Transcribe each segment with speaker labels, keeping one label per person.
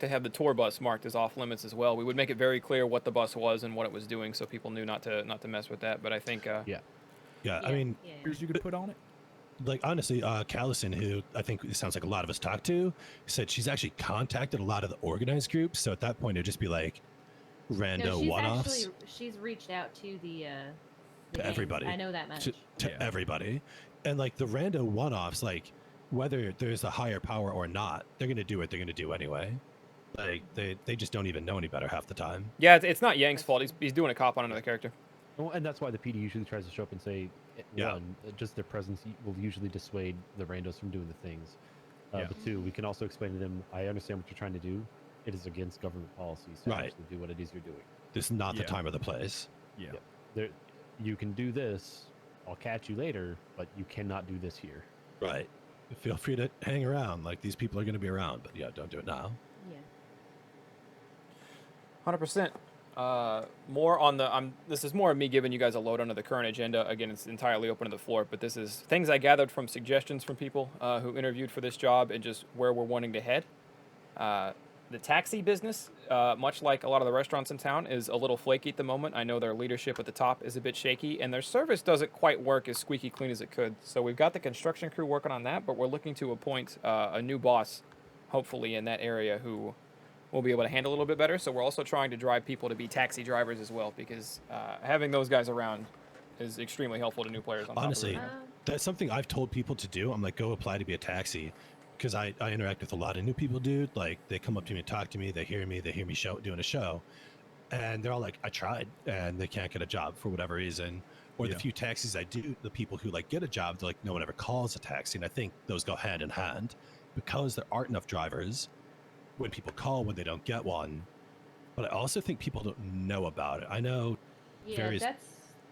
Speaker 1: to have the tour bus marked as off limits as well. We would make it very clear what the bus was and what it was doing, so people knew not to not to mess with that. But I think uh,
Speaker 2: Yeah.
Speaker 3: Yeah, I
Speaker 4: Yeah,
Speaker 3: mean,
Speaker 4: yeah.
Speaker 2: Years you could put on it.
Speaker 3: like honestly, uh, Callison, who I think it sounds like a lot of us talked to, said she's actually contacted a lot of the organized groups. So at that point, it'd just be like
Speaker 4: no,
Speaker 3: rando
Speaker 4: she's
Speaker 3: uh, one-offs
Speaker 4: actually she's reached out to the uh the
Speaker 3: To
Speaker 4: gangs.
Speaker 3: everybody.
Speaker 4: I know that much.
Speaker 3: to, to
Speaker 2: Yeah.
Speaker 3: everybody, and like the rando one-offs, like whether there's a higher power or not, they're gonna do what they're gonna do anyway. Like they they just don't even know any better half the time.
Speaker 1: yeah, it's, it's not Yang's fault. He's, he's doing a cop on another character.
Speaker 2: Well, and that's why the PD usually tries to show up and say, eh,
Speaker 3: Yeah.
Speaker 2: one, uh, just their presence y- will usually dissuade the randos from doing the things. Uh,
Speaker 3: Yeah.
Speaker 2: But two, we can also explain to them, I understand what you're trying to do. It is against government policy, so
Speaker 3: Right.
Speaker 2: actually do what it is you're doing.
Speaker 3: This is not
Speaker 5: Yeah.
Speaker 3: the time or the place.
Speaker 5: Yeah.
Speaker 2: Yeah. There, you can do this. I'll catch you later, but you cannot do this here.
Speaker 3: Right. Feel free to hang around. Like these people are gonna be around, but yeah, don't do it now.
Speaker 4: Yeah.
Speaker 1: Hundred percent. Uh, more on the. I'm. This is more of me giving you guys a load under the current agenda. Again, it's entirely open to the floor, but this is things I gathered from suggestions from people uh, who interviewed for this job and just where we're wanting to head. Uh, the taxi business, uh, much like a lot of the restaurants in town, is a little flaky at the moment. I know their leadership at the top is a bit shaky, and their service doesn't quite work as squeaky clean as it could. So we've got the construction crew working on that, but we're looking to appoint uh, a new boss, hopefully in that area, who we'll be able to handle a little bit better. So we're also trying to drive people to be taxi drivers as well, because uh, having those guys around is extremely helpful to new players. On top of
Speaker 3: Honestly,
Speaker 1: everything.
Speaker 4: Uh,
Speaker 3: that's something I've told people to do. I'm like, go apply to be a taxi because I, I interact with a lot of new people, dude. Like, they come up to me and talk to me. They hear me. They hear me show doing a show. And they're all like, I tried and they can't get a job for whatever reason. Or
Speaker 5: Yeah.
Speaker 3: the few taxis I do, the people who like get a job, they're like, no one ever calls a taxi. And I think those go hand in hand because there aren't enough drivers when people call when they don't get one. But I also think people don't know about it. I know
Speaker 4: yeah,
Speaker 3: various-
Speaker 4: that's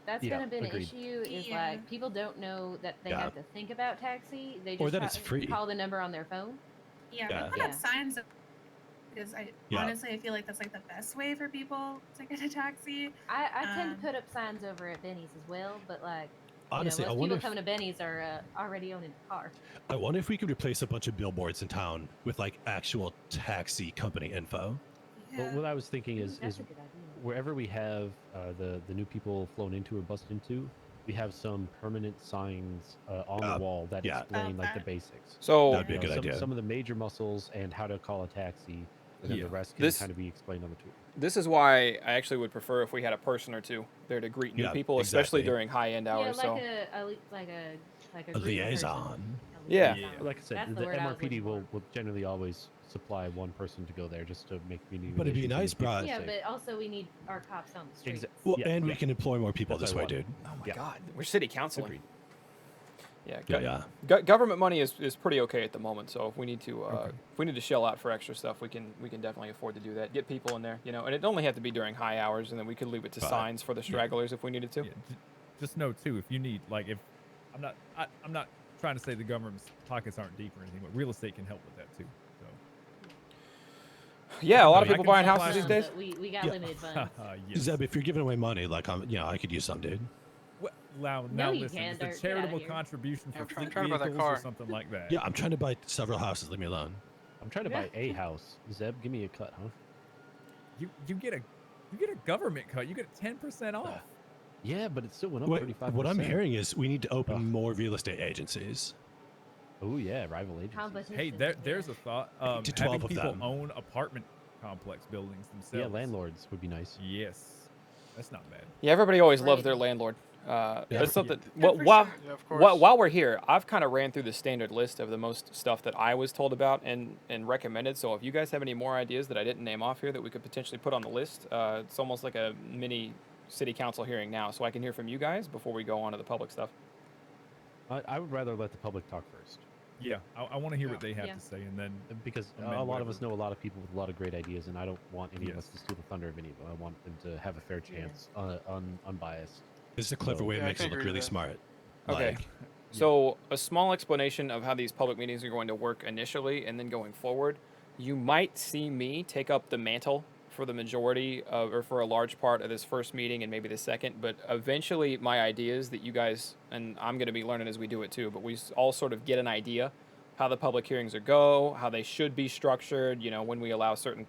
Speaker 4: that's
Speaker 2: Yeah,
Speaker 4: kind of been
Speaker 2: agreed.
Speaker 4: an issue. Is
Speaker 6: Yeah.
Speaker 4: like people don't know that they
Speaker 3: Yeah.
Speaker 4: have to think about taxi. They just
Speaker 3: Or that
Speaker 4: ca-
Speaker 3: it's free.
Speaker 4: call the number on their phone.
Speaker 6: Yeah,
Speaker 3: Yeah.
Speaker 6: people
Speaker 4: Yeah.
Speaker 6: have signs up because I
Speaker 3: Yeah.
Speaker 6: honestly I feel like that's like the best way for people to get a taxi.
Speaker 4: I, I tend
Speaker 6: Um,
Speaker 4: to put up signs over at Benny's as well, but like
Speaker 3: honestly,
Speaker 4: you know,
Speaker 3: I
Speaker 4: most
Speaker 3: wonder
Speaker 4: people
Speaker 3: if-
Speaker 4: coming to Benny's are uh, already owning a car.
Speaker 3: I wonder if we could replace a bunch of billboards in town with like actual taxi company info.
Speaker 6: Yeah.
Speaker 2: But what I was thinking is,
Speaker 4: that's
Speaker 2: is
Speaker 4: a good idea.
Speaker 2: wherever we have uh, the the new people flown into or busted into, we have some permanent signs uh, on
Speaker 3: Uh,
Speaker 2: the wall that
Speaker 3: yeah.
Speaker 2: explain like the
Speaker 6: Okay.
Speaker 2: basics.
Speaker 1: so
Speaker 3: That'd be a
Speaker 2: You
Speaker 3: good
Speaker 2: some,
Speaker 3: idea.
Speaker 2: Some of the major muscles and how to call a taxi, and then
Speaker 5: Yeah.
Speaker 2: the rest can
Speaker 1: This-
Speaker 2: kind of be explained on the tour.
Speaker 1: This is why I actually would prefer if we had a person or two there to greet new
Speaker 3: Yeah,
Speaker 1: people, especially
Speaker 3: exactly.
Speaker 1: during high end
Speaker 4: Yeah,
Speaker 1: hours.
Speaker 4: like
Speaker 1: so
Speaker 4: a, a li- like a like a,
Speaker 3: A
Speaker 4: group person.
Speaker 3: liaison.
Speaker 4: A
Speaker 1: Yeah.
Speaker 4: liaison.
Speaker 2: Like I said,
Speaker 4: That's
Speaker 2: the,
Speaker 4: the word I was
Speaker 2: MRPD
Speaker 4: looking
Speaker 2: will,
Speaker 4: for.
Speaker 2: will generally always supply one person to go there just to make community.
Speaker 3: But it'd be
Speaker 2: relations
Speaker 3: nice,
Speaker 2: and
Speaker 3: bro.
Speaker 2: keep
Speaker 4: Yeah,
Speaker 2: people safe.
Speaker 4: but also we need our cops on the street.
Speaker 2: Exa-
Speaker 3: Well,
Speaker 2: yeah,
Speaker 3: and we
Speaker 2: yeah.
Speaker 3: can employ more people
Speaker 2: That's
Speaker 3: this way,
Speaker 2: what I
Speaker 3: dude.
Speaker 1: oh my
Speaker 2: yeah.
Speaker 1: god, we're city council.
Speaker 2: Agreed.
Speaker 1: Yeah,
Speaker 3: Yeah,
Speaker 1: go-
Speaker 3: yeah.
Speaker 1: Go- government money is, is pretty okay at the moment, so if we need to uh, if we need to shell out for extra stuff, we can we can definitely afford to do that. Get people in there, you know, and it only have to be during high hours, and then we could leave it to
Speaker 3: Right.
Speaker 1: signs for the stragglers if we needed to.
Speaker 5: Yeah, j- just know too, if you need like if I'm not I, I'm not trying to say the government's pockets aren't deep or anything, but real estate can help with that too. So
Speaker 1: Yeah, a lot of
Speaker 5: I
Speaker 1: people
Speaker 5: can
Speaker 1: buying
Speaker 5: supply
Speaker 1: houses these
Speaker 4: Um,
Speaker 5: some-
Speaker 1: days.
Speaker 4: but we, we got
Speaker 3: Yeah.
Speaker 4: limited funds.
Speaker 5: yes.
Speaker 3: Zeb, if you're giving away money, like I'm, you know, I could use some, dude.
Speaker 5: Well, now,
Speaker 4: No,
Speaker 5: now
Speaker 4: you
Speaker 5: listen,
Speaker 4: can't,
Speaker 5: it's
Speaker 4: Dirk,
Speaker 5: a
Speaker 4: get outta
Speaker 5: charitable
Speaker 4: here.
Speaker 5: contribution
Speaker 7: I'm
Speaker 5: for
Speaker 7: trying
Speaker 5: fleet
Speaker 7: to buy that
Speaker 5: vehicles or
Speaker 7: car.
Speaker 5: something like that.
Speaker 3: Yeah, I'm trying to buy several houses. Leave me alone.
Speaker 2: I'm trying to
Speaker 5: Yeah.
Speaker 2: buy a house. Zeb, give me a cut, huh?
Speaker 5: You you get a you get a government cut. You get ten percent off.
Speaker 2: Yeah, but it still went up
Speaker 3: What,
Speaker 2: 35
Speaker 3: what I'm hearing is we need to open
Speaker 2: Ugh.
Speaker 3: more real estate agencies.
Speaker 2: Oh yeah, rival agencies.
Speaker 4: Competition.
Speaker 5: Hey, there there's a thought. Um,
Speaker 3: to 12
Speaker 5: having
Speaker 3: of
Speaker 5: people
Speaker 3: them.
Speaker 5: own apartment complex buildings themselves.
Speaker 2: Yeah, landlords would be nice.
Speaker 5: Yes, that's not bad.
Speaker 1: Yeah, everybody always loves
Speaker 4: Right.
Speaker 1: their landlord. Uh,
Speaker 3: Yeah.
Speaker 1: That's something.
Speaker 6: Yeah,
Speaker 1: Well,
Speaker 6: for
Speaker 1: while,
Speaker 6: sure.
Speaker 7: Yeah, of
Speaker 1: whi-
Speaker 7: course.
Speaker 1: while we're here, I've kind of ran through the standard list of the most stuff that I was told about and, and recommended. So if you guys have any more ideas that I didn't name off here that we could potentially put on the list, uh, it's almost like a mini city council hearing now. So I can hear from you guys before we go on to the public stuff.
Speaker 2: I, I would rather let the public talk first
Speaker 5: Yeah, I, I want to hear what they have
Speaker 4: Yeah.
Speaker 5: to say, and then
Speaker 2: uh, because
Speaker 5: And
Speaker 2: uh,
Speaker 5: then
Speaker 2: a lot of us
Speaker 5: whatever.
Speaker 2: know a lot of people with a lot of great ideas, and I don't want any of
Speaker 5: Yes.
Speaker 2: us to steal the thunder of any of them. I want them to have a fair
Speaker 4: Yeah.
Speaker 2: chance, uh, un, unbiased.
Speaker 3: This is a clever
Speaker 2: Oh.
Speaker 3: way to
Speaker 7: Yeah, I
Speaker 3: make
Speaker 7: can
Speaker 3: it look
Speaker 7: agree
Speaker 3: really
Speaker 7: with that.
Speaker 3: smart.
Speaker 1: Okay.
Speaker 3: Like,
Speaker 1: So, a small explanation of how these public meetings are going to work initially and then going forward. You might see me take up the mantle for the majority of, or for a large part of this first meeting and maybe the second, but eventually my ideas that you guys, and I'm going to be learning as we do it too, but we s- all sort of get an idea how the public hearings are go, how they should be structured, you know, when we allow certain